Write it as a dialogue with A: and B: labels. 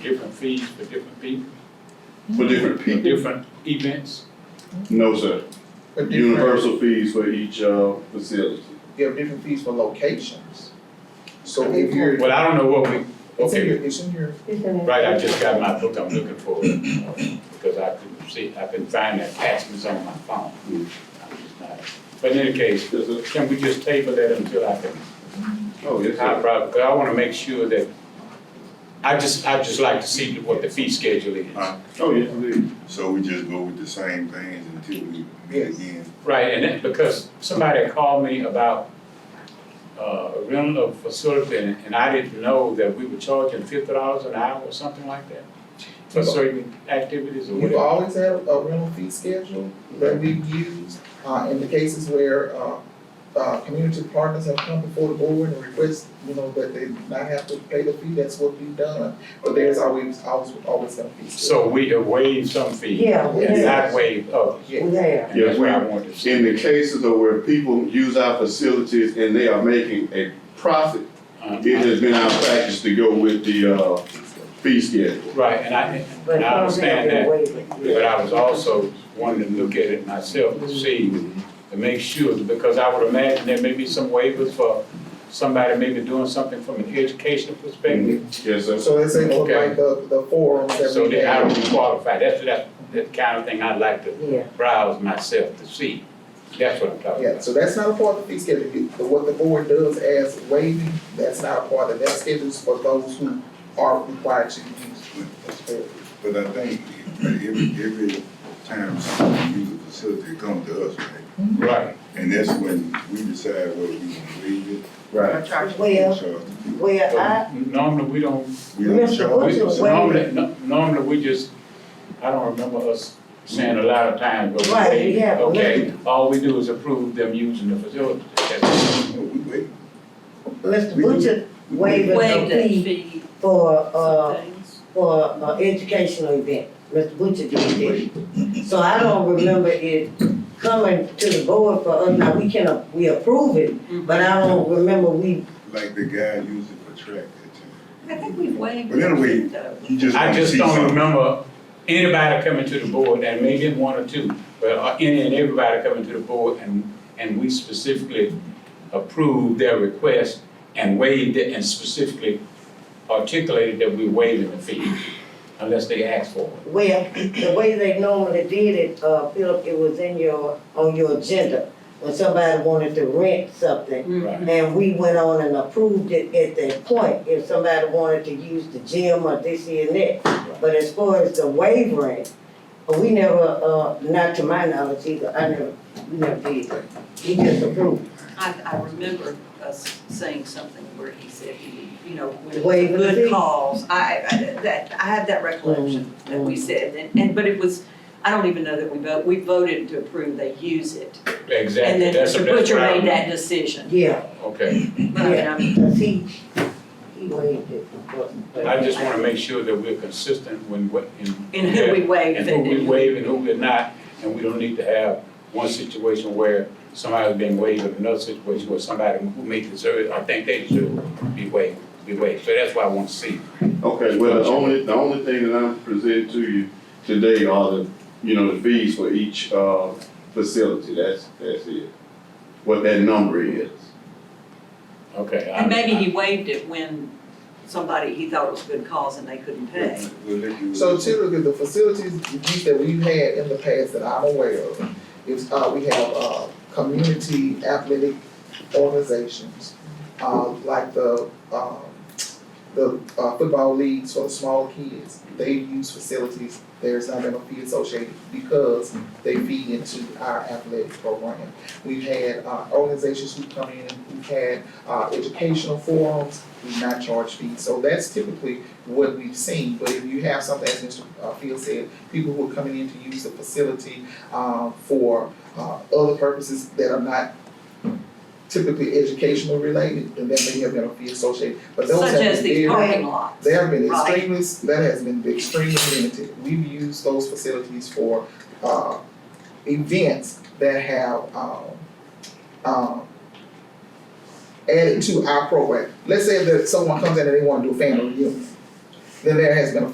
A: different fees for different people,
B: For different
A: for
B: people?
A: different events?
B: No, sir.
C: But different-
B: Universal fees for each, uh, facility.
C: You have different fees for locations. So if you're,
A: Well, I don't know what we,
C: it's in
A: okay,
C: your, it's in your,
A: right, I just got my book I'm looking for, because I couldn't see, I couldn't find the attachments on my phone. I'm just not- But in any case,
B: Yes, sir.
A: can we just table that until I can,
B: Oh, yes,
A: I
B: sir.
A: probably, because I wanna make sure that, I just, I'd just like to see what the fee schedule is.
D: Alright.
B: Oh, yes, indeed.
D: So we just go with the same things until we meet
C: Yes.
D: again?
A: Right, and that, because somebody called me about, uh, a rental of facility, and, and I didn't know that we were charging fifty dollars an hour or something like that for certain activities or
C: we've
A: whatever.
C: always had a rental fee schedule that we've used, uh, in the cases where, uh, uh, community partners have come before the board and request, you know, that they not have to pay the fee, that's what we've done. But there's always, always, always gonna be.
A: So we have waived some fees,
E: Yeah, we
C: Yes.
E: have,
A: not waived others,
E: we
C: Yes,
E: have.
A: and that's what I
B: Yes,
A: wanted to see.
B: In the cases of where people use our facilities and they are making a profit, it
A: Uh,
B: has been our practice to go with the, uh, fee schedule.
A: Right, and I,
E: But
A: and I
E: some have
A: understand
E: been
A: that,
E: waiving.
A: but I was also wanting to look at it myself to see, to make sure, because I would imagine there may be some waivers for somebody maybe doing something from an educational perspective.
B: Yes, sir.
C: so let's say for
A: Okay.
C: like the, the forums that
A: So
C: we
A: then I
C: have.
A: would be qualified, that's, that's the kind of thing I'd like to
E: Yeah,
A: browse myself to see, that's what I'm talking
C: Yeah,
A: about.
C: so that's not a part of the fee schedule, It- the- what the board does as waiving, that's not a part of that schedule's for those who are required to use. it.
D: But I think every, every time someone uses a facility, it comes to us, right?
A: Right,
D: And that's when we decide whether we can leave
B: Right.
D: it or
E: well,
D: charge.
E: well, I,
A: but normally we don't,
D: We don't
E: Mr.
D: charge.
E: What's
A: we,
E: your
D: it.
E: waiver?
A: normally, no- normally we just, I don't remember us saying a lot of times, but we
E: Right,
A: say,
E: we have a
A: okay,
E: limit.
A: all we do is approve them using the facility. That's-
D: No, we wait.
E: Mr. Butcher waived
F: Waive
E: the
F: that
E: fee
F: fee,
E: for,
F: some
E: uh,
F: things.
E: for, uh, educational event. Mr. Butcher did that. So I don't remember it coming to the board for us, now we can, uh, we approve it, but I don't remember we,
D: Like the guy used it for track
F: I
D: that time.
F: think we've waived.
D: But anyway,
F: that fee,
D: You just
A: I
D: wanna
A: just
D: see
A: don't
D: something.
A: remember anybody coming to the board, and maybe one or two, but uh, any and everybody coming to the board, and, and we specifically approved their request and waived it, and specifically articulated that we waiving the fee, unless they asked for it.
E: well, the way they normally did it, uh, Philip, it was in your, on your agenda. When somebody wanted to rent something,
F: though.
A: Right.
E: And we went on and approved it at that point, if somebody wanted to use the gym or this here and that. But as far as the wavering, we never, uh, not to my knowledge either, I never, we never did. He just approved,
F: I, I remember us saying something where he said, he, you know, when it was a
E: Waive the fee. Mm,
F: good cause, I, I, that, I had that recollection that we said, and, and, but it was, I don't even know that we vote, we voted to approve they use it. And
A: Exactly,
F: then
A: that's, that's
F: Mr.
A: what
F: Butcher
A: I
F: made
A: remember.
F: that decision,
E: yeah,
A: Okay,
F: but um, I mean, I'm-
E: cause he, he waived it.
A: I just wanna make sure that we're consistent when, what, in.
F: in who we waived
A: And
F: it.
A: who we waive and who we're not, and we don't need to have one situation where somebody's being waived and another situation where somebody who may deserve, it, I think they deserve it, be waived, be waived. So that's why I want to see.
B: Okay, well, the only, the only thing that I'm presenting to you today are the, you know, the fees for each, uh, facility, that's, that's it. What that number is.
A: Okay. I-
F: And maybe he waived it when somebody, he thought it was a good cause and they couldn't pay.
D: We'll let you-
C: So typically, the facilities use that we've had in the past that I'm aware of, is, uh, we have, uh, community athletic organizations, uh, like the, um, the, uh, football leagues for the small kids, they use facilities, there's not been a fee associated because they feed into our athletic program. We've had, uh, organizations who come in, we've had, uh, educational forums, we not charge fees, so that's typically what we've seen, but if you have something, as Mr. uh, Field said, people who are coming in to use the facility, um, for, uh, other purposes that are not typically educational related, then there may have been a fee associated, but those have
F: Such
C: been
F: as
C: very-
F: these parking lots.
C: they have been
F: Right.
C: extremely, that has been extremely limited. We've used those facilities for, uh, events that have, um, um, added to our program. Let's say that someone comes in and they wanna do a family reunion. Then there has been a